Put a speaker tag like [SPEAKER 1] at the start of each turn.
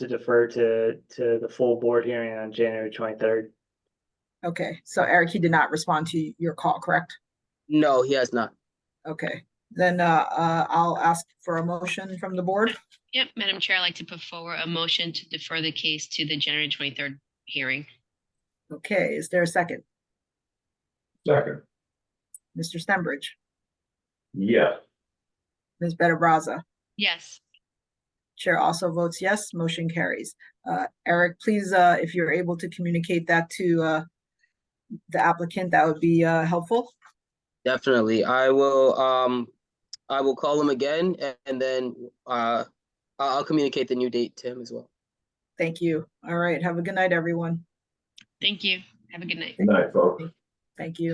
[SPEAKER 1] to defer to, to the full board hearing on January twenty-third.
[SPEAKER 2] Okay, so Eric, he did not respond to your call, correct?
[SPEAKER 3] No, he has not.
[SPEAKER 2] Okay, then uh, uh, I'll ask for a motion from the board.
[SPEAKER 4] Yep, Madam Chair, I'd like to put forward a motion to defer the case to the January twenty-third hearing.
[SPEAKER 2] Okay, is there a second?
[SPEAKER 5] Second.
[SPEAKER 2] Mr. Stenbridge,
[SPEAKER 5] Yes.
[SPEAKER 2] Ms. Better Brazza,
[SPEAKER 4] Yes,
[SPEAKER 2] Chair also votes yes, motion carries. Uh, Eric, please, uh, if you're able to communicate that to uh, the applicant, that would be uh, helpful.
[SPEAKER 3] Definitely. I will, um, I will call him again a- and then, uh, I- I'll communicate the new date to him as well.
[SPEAKER 2] Thank you. All right, have a good night, everyone.
[SPEAKER 4] thank you. Have a good night.
[SPEAKER 5] Good night, folks.
[SPEAKER 2] Thank you.